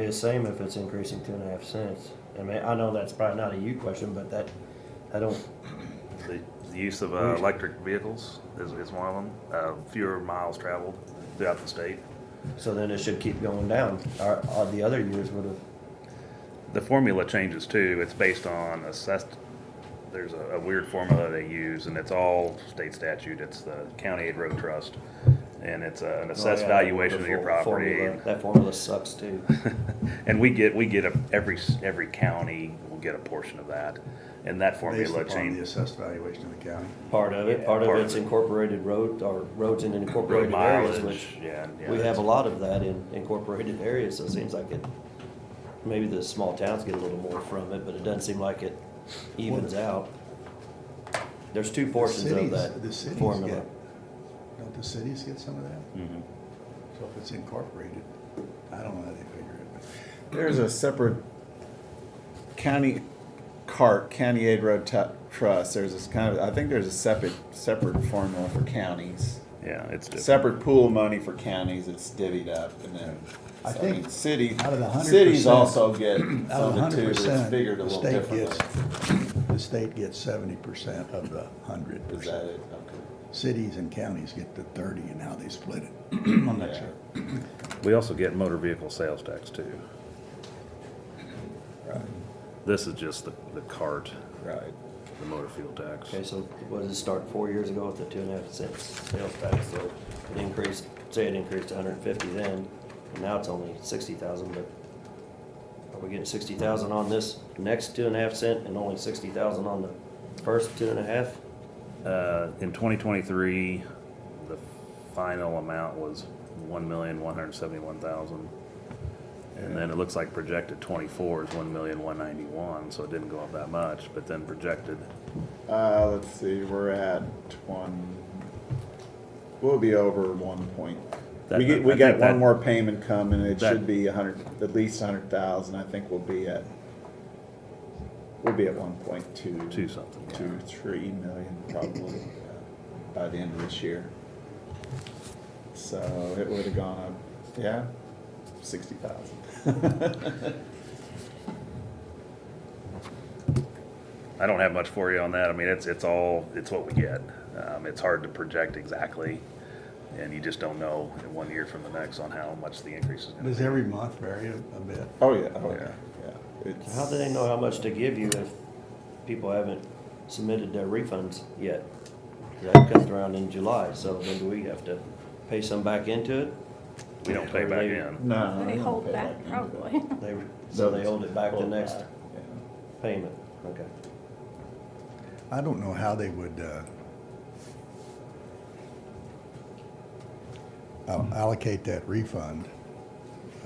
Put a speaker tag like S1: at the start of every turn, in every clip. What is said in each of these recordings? S1: Be the same if it's increasing two and a half cents. I mean, I know that's probably not a you question, but that, I don't,
S2: The the use of uh, electric vehicles is, is one of them. Uh, fewer miles traveled throughout the state.
S1: so then it should keep going down. Our, all the other years would have,
S2: The formula changes too. It's based on assessed. There's a, a weird formula they use, and it's all state statute. It's the County Aid Road Trust, and it's uh, an assessed
S1: Oh, yeah,
S2: valuation of your
S1: the
S2: property.
S1: formula- That formula sucks too.
S2: And we get, we get a, every, s- every county will get a portion of that, and that
S3: Based
S2: formula
S3: upon the
S2: changes.
S3: assessed valuation of the county.
S1: Part of it, part of
S2: Part of
S1: it's
S2: it.
S1: incorporated road, or roads in
S2: Road
S1: incorporated areas,
S2: mileage,
S1: which
S2: yeah. and- yeah,
S1: we have
S2: it's-
S1: a lot of that in incorporated areas, so it seems like it, maybe the small towns get a little more from it, but it doesn't seem like it evens out. There's two portions of
S3: cities-
S1: that
S3: the cities
S1: formula.
S3: get- Don't the cities get some of that?
S2: Mhm.
S3: So if it's incorporated, I don't know how they figure it, but.
S4: There's a separate county cart, county aid road tu- trust. There's this kind of, I think there's a separate, separate formula for counties.
S2: Yeah, it's different.
S4: Separate pool of money for counties, it's divvied up and then.
S3: I
S4: so,
S3: think
S4: mean, City,
S3: out of the 100%,
S4: cities also
S3: Out
S4: get
S3: of
S4: some of it
S3: hundred
S4: too, but it's
S3: percent,
S4: figured a
S3: the
S4: little
S3: state
S4: differently.
S3: gets, the state gets seventy percent of the hundred
S4: Is that
S3: percent.
S4: it? Okay.
S3: Cities and counties get the thirty and how they split it. I'm not
S4: Yeah.
S3: sure.
S2: We also get motor vehicle sales tax too. This is just the, the cart,
S4: Right.
S2: the motor fuel tax.
S1: Okay, so what did it start four years ago with the two and a half cents sales tax? So it increased, say it increased hundred and fifty then, and now it's only sixty thousand, but are we getting sixty thousand on this next two and a half cent and only sixty thousand on the first two and a half?
S2: Uh, in twenty twenty-three, the final amount was one million, one hundred seventy-one thousand. And then it looks like projected twenty-four is one million, one ninety-one, so it didn't go up that much, but then projected
S4: Uh, let's see, we're at one, we'll be over one point.
S2: That-
S4: We get,
S2: I
S4: we got
S2: think that-
S4: one more payment coming, it
S2: that-
S4: should be a hundred, at least a hundred thousand, I think we'll be at, we'll be at one point two,
S2: two something. yeah.
S4: two, three million probably, uh, by the end of this year. So it would've gone up, yeah, sixty thousand.
S2: I don't have much for you on that. I mean, it's, it's all, it's what we get. Um, it's hard to project exactly. And you just don't know in one year from the next on how much the increase is gonna
S3: Does
S2: be.
S3: every month vary a a bit?
S4: Oh, yeah, oh,
S2: Yeah.
S4: yeah, yeah.
S1: So How do they know how much to give you if people haven't submitted their refunds yet? That comes around in July, so then do we have to pay some back into it?
S2: We don't pay
S1: Or
S2: back
S1: they-
S2: in.
S4: No.
S5: They
S4: don't
S5: hold
S4: pay
S5: back,
S4: into it.
S5: probably.
S1: They, so they hold it back the next payment, okay.
S3: I don't know how they would uh, al- allocate that refund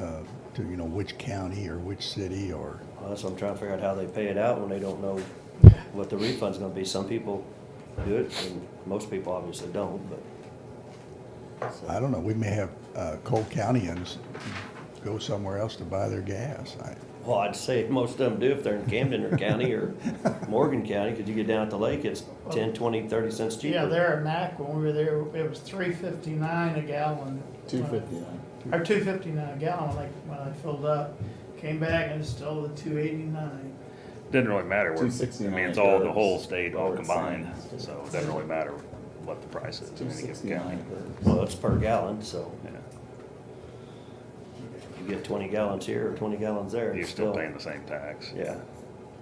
S3: uh, to, you know, which county or which city or,
S1: Well, that's what I'm trying to figure out how they pay it out when they don't know what the refund's gonna be. Some people do it, and most people obviously don't, but. so,
S3: I don't know, we may have uh, Cole Countyans go somewhere else to buy their gas. I-
S1: Well, I'd say most of them do if they're in Camden or County or Morgan County, 'cause you get down at the lake, it's ten, twenty, thirty cents cheaper.
S6: Yeah, there at Mac, when we were there, it was three fifty-nine a gallon.
S4: Two fifty-nine.
S6: Or two fifty-nine a gallon, like, when I filled up, came back and it's still the two eighty-nine.
S2: Doesn't really matter. where- I
S4: 269
S2: mean, it's all, the
S4: goes
S2: whole state all
S4: where it's
S2: combined,
S4: signed.
S2: so it doesn't really matter what the price is. in
S4: Two
S2: any given county.
S4: sixty-nine.
S1: Well, it's per gallon, so
S2: Yeah.
S1: you get twenty gallons here or twenty gallons there,
S2: You're
S1: it's
S2: still
S1: still,
S2: paying the same tax.
S1: yeah.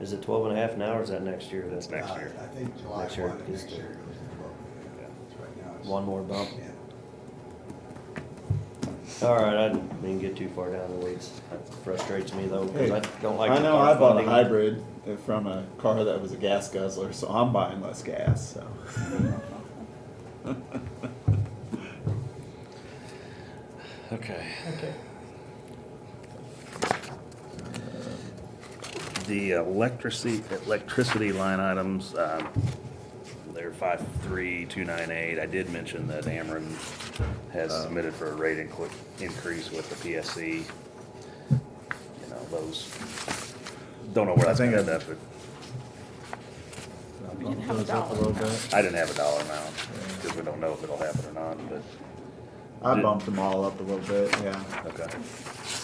S1: Is it twelve and a half now or is that next year?
S2: That's next year.
S3: I think July
S1: Next year,
S3: 1, next
S1: just-
S3: year goes to 12. It's right now, it's-
S1: One more bump.
S3: Yeah.
S1: All right, I didn't get too far down the weeds. That frustrates me though, because I don't like.
S4: I
S1: the
S4: know
S1: car
S4: I bought a
S1: funding.
S4: hybrid from a car that was a gas guzzler, so I'm buying less gas. So
S2: Okay.
S6: Okay.
S2: The electricity, electricity line items, um, they're five, three, two, nine, eight. I did mention that Ameren has submitted for a rate incre- increase with the PSC. You know, those, don't know where that's gonna end up, but
S5: We didn't have a dollar.
S2: I didn't have a dollar amount, because we don't know if it'll happen or not, but,
S4: I
S2: Did-
S4: bumped them all up a little bit. Yeah,
S2: okay.